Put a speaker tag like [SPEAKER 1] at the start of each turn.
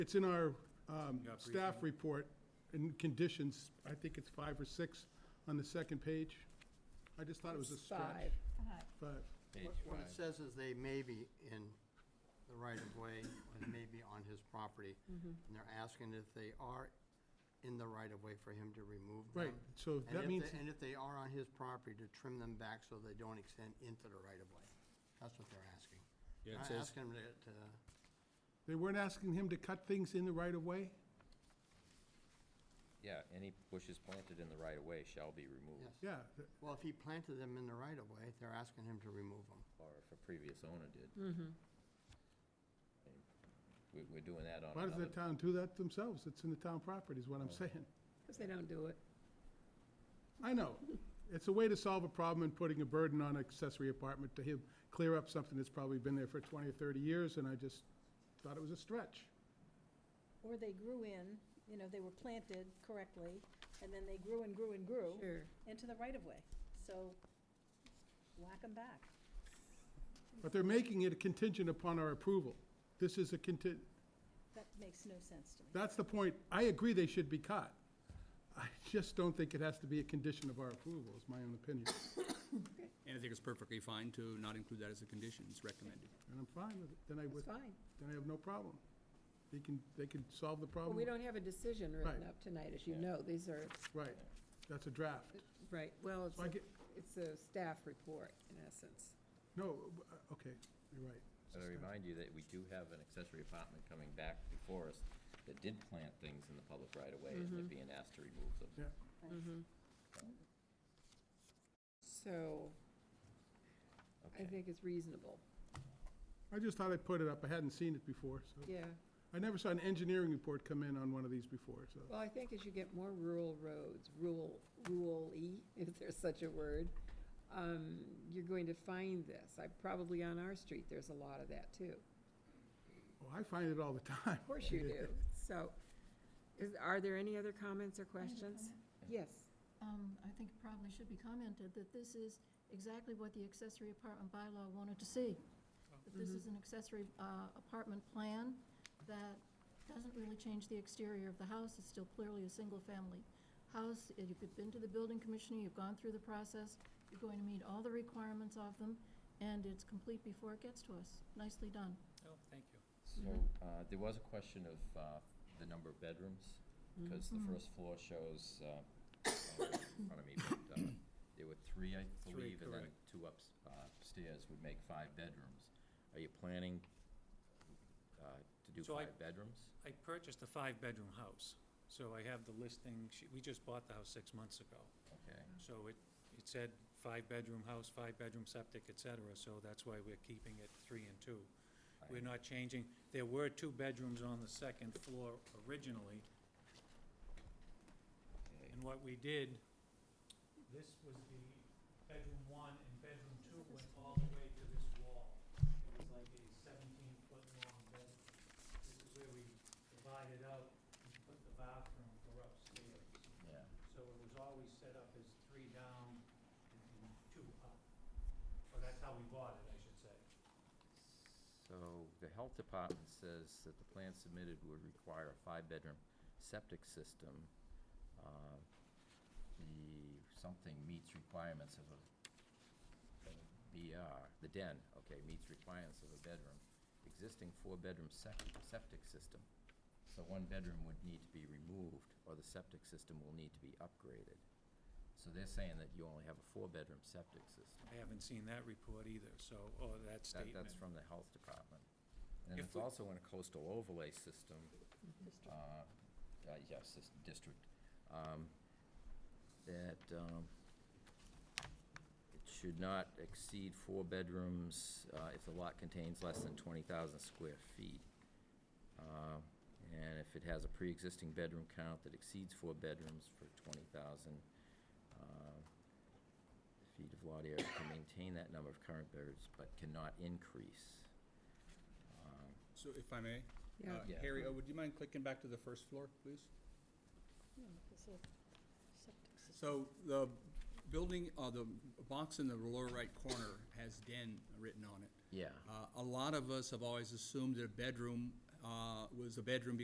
[SPEAKER 1] It's in our um,
[SPEAKER 2] Got briefing.
[SPEAKER 1] staff report in conditions, I think it's five or six on the second page. I just thought it was a stretch,
[SPEAKER 3] Five.
[SPEAKER 1] but
[SPEAKER 4] What what it says is they may be in the right-of-way and may be on his property.
[SPEAKER 1] Mm-hmm.
[SPEAKER 4] And they're asking if they are in the right-of-way for him to remove them.
[SPEAKER 1] Right, so
[SPEAKER 4] And
[SPEAKER 1] that
[SPEAKER 4] if they-
[SPEAKER 1] means-
[SPEAKER 4] And if they are on his property, to trim them back so they don't extend into the right-of-way. That's what they're asking.
[SPEAKER 2] Yeah, it
[SPEAKER 4] Not
[SPEAKER 2] says-
[SPEAKER 4] asking them to- to,
[SPEAKER 1] they weren't asking him to cut things in the right-of-way?
[SPEAKER 5] Yeah, any bushes planted in the right of way shall be removed,
[SPEAKER 4] yes.
[SPEAKER 1] Yeah, th-
[SPEAKER 4] Well, if he planted them in the right-of-way, they're asking him to remove them.
[SPEAKER 5] or if a previous owner did. We, we're doing that on
[SPEAKER 1] why does the
[SPEAKER 5] another,
[SPEAKER 1] town do that themselves? It's in the town property, is what I'm saying.
[SPEAKER 3] Because they don't do it.
[SPEAKER 1] I know. It's a way to solve a problem and putting a burden on accessory apartment to him, clear up something that's probably been there for 20 or 30 years, and I just thought it was a stretch.
[SPEAKER 6] Or they grew in, you know, they were planted correctly, and then they grew and grew and grew
[SPEAKER 3] Sure.
[SPEAKER 6] into the right-of-way. So whack them back.
[SPEAKER 1] But they're making it a contingent upon our approval. This is a contingent,
[SPEAKER 6] That makes no sense to me.
[SPEAKER 1] That's the point. I agree they should be caught. I just don't think it has to be a condition of our approval, is my own opinion,
[SPEAKER 2] And I think it's perfectly fine to not include that as a condition, it's recommended.
[SPEAKER 1] and I'm fine with it. Then I
[SPEAKER 3] It's
[SPEAKER 1] would,
[SPEAKER 3] fine.
[SPEAKER 1] then I have no problem. They can, they can solve the
[SPEAKER 3] Well,
[SPEAKER 1] problem.
[SPEAKER 3] we don't have a decision written
[SPEAKER 1] Right.
[SPEAKER 3] up tonight, as you know. These are,
[SPEAKER 1] Right. That's a draft.
[SPEAKER 3] right, well, it's
[SPEAKER 1] So I
[SPEAKER 3] a-
[SPEAKER 1] get,
[SPEAKER 3] it's a staff report, in essence.
[SPEAKER 1] no, uh, okay, you're right. It's
[SPEAKER 5] I
[SPEAKER 1] just-
[SPEAKER 5] remind you that we do have an accessory apartment coming back before us that did plant things in the public right of way, and they're being asked to remove them.
[SPEAKER 1] Yeah.
[SPEAKER 3] So I
[SPEAKER 5] Okay.
[SPEAKER 3] think it's reasonable.
[SPEAKER 1] I just thought I'd put it up. I hadn't seen it before, so.
[SPEAKER 3] Yeah.
[SPEAKER 1] I never saw an engineering report come in on one of these before, so.
[SPEAKER 3] Well, I think as you get more rural roads, rural, rural-y, if there's such a word, um, you're going to find this. I, probably on our street, there's a lot of that, too.
[SPEAKER 1] Oh, I find it all the time.
[SPEAKER 3] Of course you do. So, is, are there any other comments or questions? Yes.
[SPEAKER 7] Um, I think it probably should be commented that this is exactly what the accessory apartment bylaw wanted to see. That this is an accessory, uh, apartment plan that doesn't really change the exterior of the house, it's still clearly a single-family house. If you've been to the building commissioner, you've gone through the process, you're going to meet all the requirements of them, and it's complete before it gets to us. Nicely done.
[SPEAKER 2] Oh, thank you.
[SPEAKER 8] Mm-hmm.
[SPEAKER 5] So, uh, there was a question of, uh, the number of bedrooms, because the
[SPEAKER 8] Mm-hmm.
[SPEAKER 5] first floor shows, uh, uh, in front of me, but, uh, there were three, I
[SPEAKER 2] Three,
[SPEAKER 5] believe, and then
[SPEAKER 2] correct.
[SPEAKER 5] two ups- upstairs would make five bedrooms. Are you planning, uh, to do
[SPEAKER 8] So I-
[SPEAKER 5] five bedrooms?
[SPEAKER 8] I purchased a five-bedroom house, so I have the listing, she- we just bought the house six months ago.
[SPEAKER 5] Okay,
[SPEAKER 8] So it, it said five-bedroom house, five-bedroom septic, et cetera, so that's why we're keeping it three and two. We're
[SPEAKER 5] Right.
[SPEAKER 8] not changing, there were two bedrooms on the second floor originally,
[SPEAKER 5] okay.
[SPEAKER 8] and what we did, this was the bedroom one, and bedroom two went all the way to this wall. It was like a seventeen-foot long bedroom. This is where we divided out and put the bathroom for upstairs.
[SPEAKER 5] yeah.
[SPEAKER 8] So it was always set up as three down and and two up. Or that's how we bought it, I should say.
[SPEAKER 5] So, the health department says that the plan submitted would require a five-bedroom septic system. Uh, The, something meets requirements of a, of a BR, the den, okay, meets requirements of a bedroom. Existing four-bedroom septic, septic system. So one bedroom would need to be removed, or the septic system will need to be upgraded. So they're saying that you only have a four-bedroom septic system.
[SPEAKER 8] I haven't seen that report either, so, or
[SPEAKER 5] That,
[SPEAKER 8] that statement.
[SPEAKER 5] that's from the health department. And
[SPEAKER 8] If
[SPEAKER 5] it's
[SPEAKER 8] we-
[SPEAKER 5] also in a coastal overlay system, uh, uh, yes, this district, um, that, um, it should not exceed four bedrooms, uh, if the lot contains less than twenty thousand square feet. Uh, and if it has a pre-existing bedroom count that exceeds four bedrooms for twenty thousand, uh, feet of lot area to maintain that number of current birds, but cannot increase. Um,
[SPEAKER 2] So if I may?
[SPEAKER 3] Yeah.
[SPEAKER 2] uh,
[SPEAKER 5] Yeah.
[SPEAKER 2] Harry, oh, would you mind clicking back to the first floor, please?
[SPEAKER 6] No, Hmm, it's a septic system.
[SPEAKER 2] So the building, uh, the box in the lower right corner has den written on it.
[SPEAKER 5] Yeah.
[SPEAKER 2] Uh, a lot of us have always assumed that a bedroom, uh, was a bedroom